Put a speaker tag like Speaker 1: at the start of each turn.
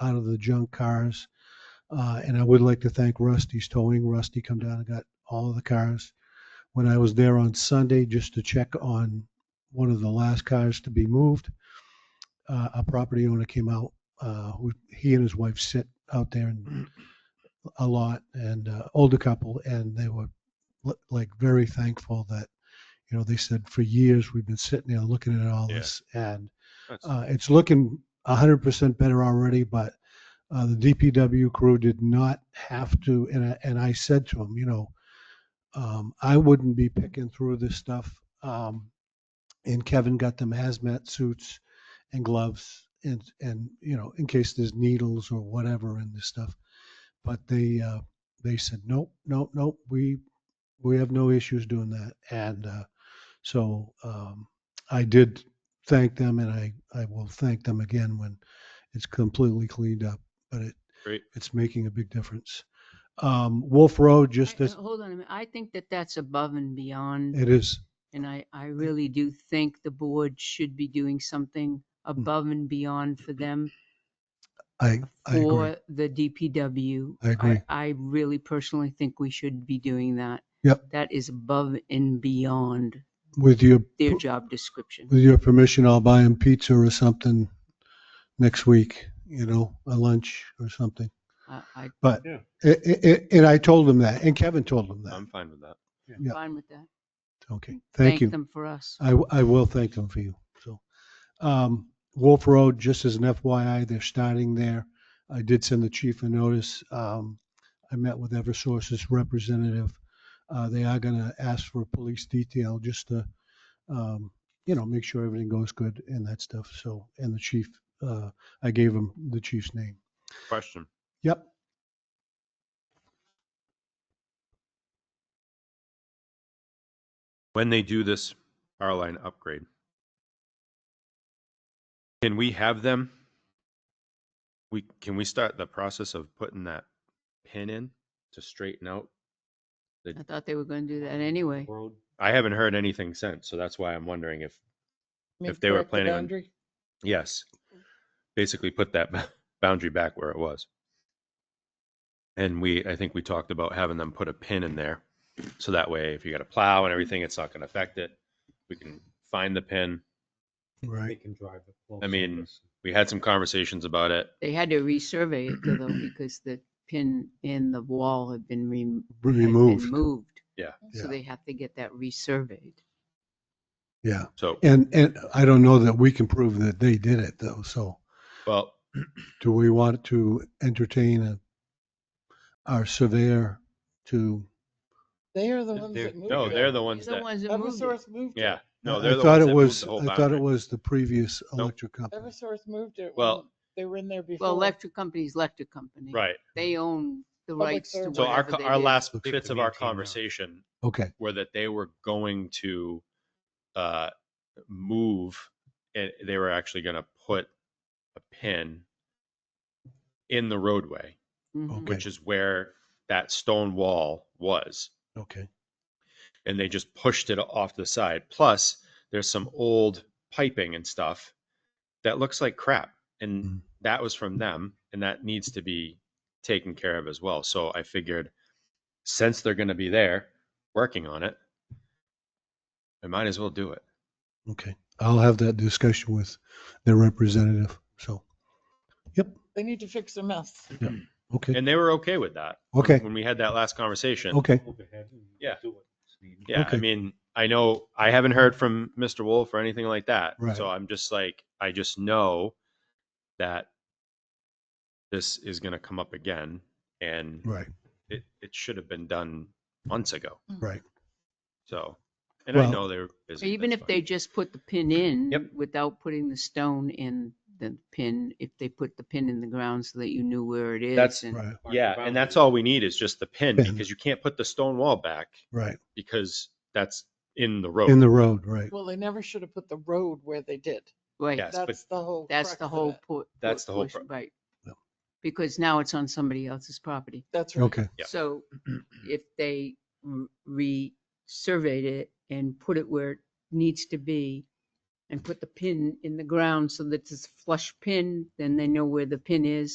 Speaker 1: out of the junk cars. Uh, and I would like to thank Rusty's Towing. Rusty come down and got all of the cars. When I was there on Sunday, just to check on one of the last cars to be moved, uh, a property owner came out, uh, who, he and his wife sit out there and a lot and, uh, older couple, and they were li- like very thankful that, you know, they said for years, we've been sitting there looking at all
Speaker 2: Yeah.
Speaker 1: this and
Speaker 2: That's-
Speaker 1: uh, it's looking hundred percent better already, but uh, the DPW crew did not have to. And I, and I said to him, you know, um, I wouldn't be picking through this stuff. Um, and Kevin got them hazmat suits and gloves and and you know in case there's needles or whatever in this stuff. But they uh, they said nope, nope, nope. We we have no issues doing that. And uh, so um, I did thank them and I, I will thank them again when it's completely cleaned up, but it,
Speaker 2: Great.
Speaker 1: it's making a big difference. Um, Wolf Road, just Eh,
Speaker 3: I- uh,
Speaker 1: as
Speaker 3: Hold on a minute. I think that that's above and beyond.
Speaker 1: it is,
Speaker 3: And I,
Speaker 1: eh.
Speaker 3: I really do think the board should be doing something
Speaker 1: Hmm.
Speaker 3: above and beyond for them,
Speaker 1: I, I agree.
Speaker 3: for the DPW.
Speaker 1: I agree.
Speaker 3: I really personally think we should be doing that.
Speaker 1: Yep.
Speaker 3: That is above and beyond
Speaker 1: With your,
Speaker 3: their
Speaker 1: per-
Speaker 3: job description.
Speaker 1: with your permission, I'll buy him pizza or something next week, you know, a lunch or something.
Speaker 3: I, I'm
Speaker 1: But,
Speaker 2: Yeah. Um,
Speaker 1: it, it, and I told him that and Kevin told him that.
Speaker 2: I'm fine with that.
Speaker 1: Yeah.
Speaker 3: fine with that.
Speaker 1: Okay, thank you. Uh,
Speaker 3: Thank them for us.
Speaker 1: I, w- I will thank them for you. So, um, Wolf Road, just as an FYI, they're starting there. I did send the chief a notice. Um, I met with Eversource's representative. Uh, they are going to ask for a police detail just to, um, you know, make sure everything goes good and that stuff. So, and the chief, uh, I gave him the chief's name.
Speaker 2: Question.
Speaker 1: Yep.
Speaker 2: When they do this power line upgrade, can we have them? We, can we start the process of putting that pin in to straighten out?
Speaker 3: I thought they were going to do that anyway.
Speaker 2: Road? I haven't heard anything since, so that's why I'm wondering if, if they were planning on, yes. Basically put that ba- boundary back where it was. And we, I think we talked about having them put a pin in there. So that way, if you got a plow and everything, it's not gonna affect it. We can find the pin.
Speaker 1: Right.
Speaker 4: can drive it.
Speaker 2: I mean, we had some conversations about it.
Speaker 3: They had to resurvey it though, because the pin in the wall had been rem- had been
Speaker 1: Removed.
Speaker 3: Moved.
Speaker 2: Yeah.
Speaker 1: Yeah.
Speaker 3: So they have to get that resurveyed.
Speaker 1: Yeah.
Speaker 2: So,
Speaker 1: And, and I don't know that we can prove that they did it though. So.
Speaker 2: well,
Speaker 1: Do we want to entertain a, our surveyor to?
Speaker 4: They are the
Speaker 2: They're-
Speaker 4: ones
Speaker 2: they're-
Speaker 4: that moved.
Speaker 2: no, they're the ones
Speaker 3: They're the
Speaker 2: that,
Speaker 3: ones that moved it.
Speaker 4: Eversource moved it.
Speaker 2: yeah,
Speaker 1: I-
Speaker 2: no, they're
Speaker 1: I
Speaker 2: the
Speaker 1: thought
Speaker 2: ones
Speaker 1: it
Speaker 2: that moved
Speaker 1: was.
Speaker 2: the whole
Speaker 1: I thought it
Speaker 2: boundary.
Speaker 1: was the previous electric company.
Speaker 4: Eversource moved it.
Speaker 2: Well-
Speaker 4: when They were in there before.
Speaker 3: Well, electric company's electric company.
Speaker 2: Right.
Speaker 3: They own the
Speaker 4: Public
Speaker 3: rights to
Speaker 4: service.
Speaker 2: So our,
Speaker 3: whatever
Speaker 2: co-
Speaker 3: they
Speaker 2: our
Speaker 3: do.
Speaker 2: last
Speaker 1: Looks like
Speaker 2: bits
Speaker 1: the
Speaker 2: of our
Speaker 1: maintain now.
Speaker 2: conversation
Speaker 1: Okay,
Speaker 2: were that they were going to uh, move and they were actually going to put a pin in the roadway,
Speaker 3: Mhm.
Speaker 1: okay,
Speaker 2: which is where that stone wall was.
Speaker 1: okay.
Speaker 2: And they just pushed it off to the side. Plus, there's some old piping and stuff that looks like crap. And
Speaker 1: Mm.
Speaker 2: that was from them. And that needs to be taken care of as well. So I figured since they're going to be there working on it, I might as well do it.
Speaker 1: Okay, I'll have that discussion with their representative. So,
Speaker 4: They need to fix their mess.
Speaker 2: Mm.
Speaker 1: okay,
Speaker 2: And they were okay with that. when-
Speaker 1: Okay.
Speaker 2: When we had that last conversation.
Speaker 1: okay,
Speaker 2: Yeah. Yeah. I
Speaker 1: Okay.
Speaker 2: mean, I know I haven't heard from Mr. Wolf or anything like that.
Speaker 1: Right.
Speaker 2: So I'm just like, I just know that this is going to come up again and
Speaker 1: right.
Speaker 2: it, it should have been done months ago.
Speaker 3: Hmm.
Speaker 1: Right.
Speaker 2: So, and I
Speaker 1: Well-
Speaker 2: know they're busy.
Speaker 3: Even
Speaker 2: that's
Speaker 3: if
Speaker 2: fine.
Speaker 3: they just put the pin in.
Speaker 2: Yep.
Speaker 3: Without putting the stone in the pin, if they put the pin in the ground so that you knew where it is.
Speaker 2: That's
Speaker 3: and-
Speaker 1: Right,
Speaker 2: Yeah, and that's all we need is just the pin
Speaker 1: Pin.
Speaker 2: because you can't put the stone wall back
Speaker 1: right.
Speaker 2: because that's in the road.
Speaker 1: In the road, right.
Speaker 4: Well, they never should have put the road where they did.
Speaker 3: Right.
Speaker 2: Yes, but-
Speaker 4: That's the whole.
Speaker 3: That's the
Speaker 4: crux of
Speaker 3: whole.
Speaker 4: it.
Speaker 3: po-
Speaker 2: That's the whole
Speaker 3: portion, Right.
Speaker 1: Yeah.
Speaker 3: Because now it's on somebody else's property.
Speaker 4: That's right.
Speaker 1: Okay,
Speaker 2: Yeah.
Speaker 3: So if they r- re-surveyed it and put it where it needs to be and put the pin in the ground so that it's a flush pin, then they know where the pin is